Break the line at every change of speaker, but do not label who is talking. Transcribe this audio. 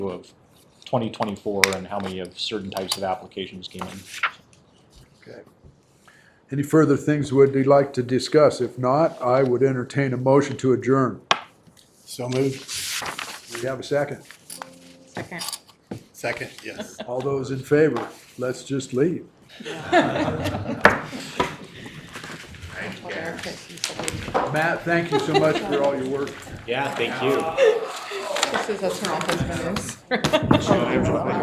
of 2024 and how many of certain types of applications came in.
Okay. Any further things would you like to discuss? If not, I would entertain a motion to adjourn.
So moved.
We have a second.
Second.
Second, yes.
All those in favor, let's just leave. Matt, thank you so much for all your work.
Yeah, thank you.
This is, that's her office, but it's-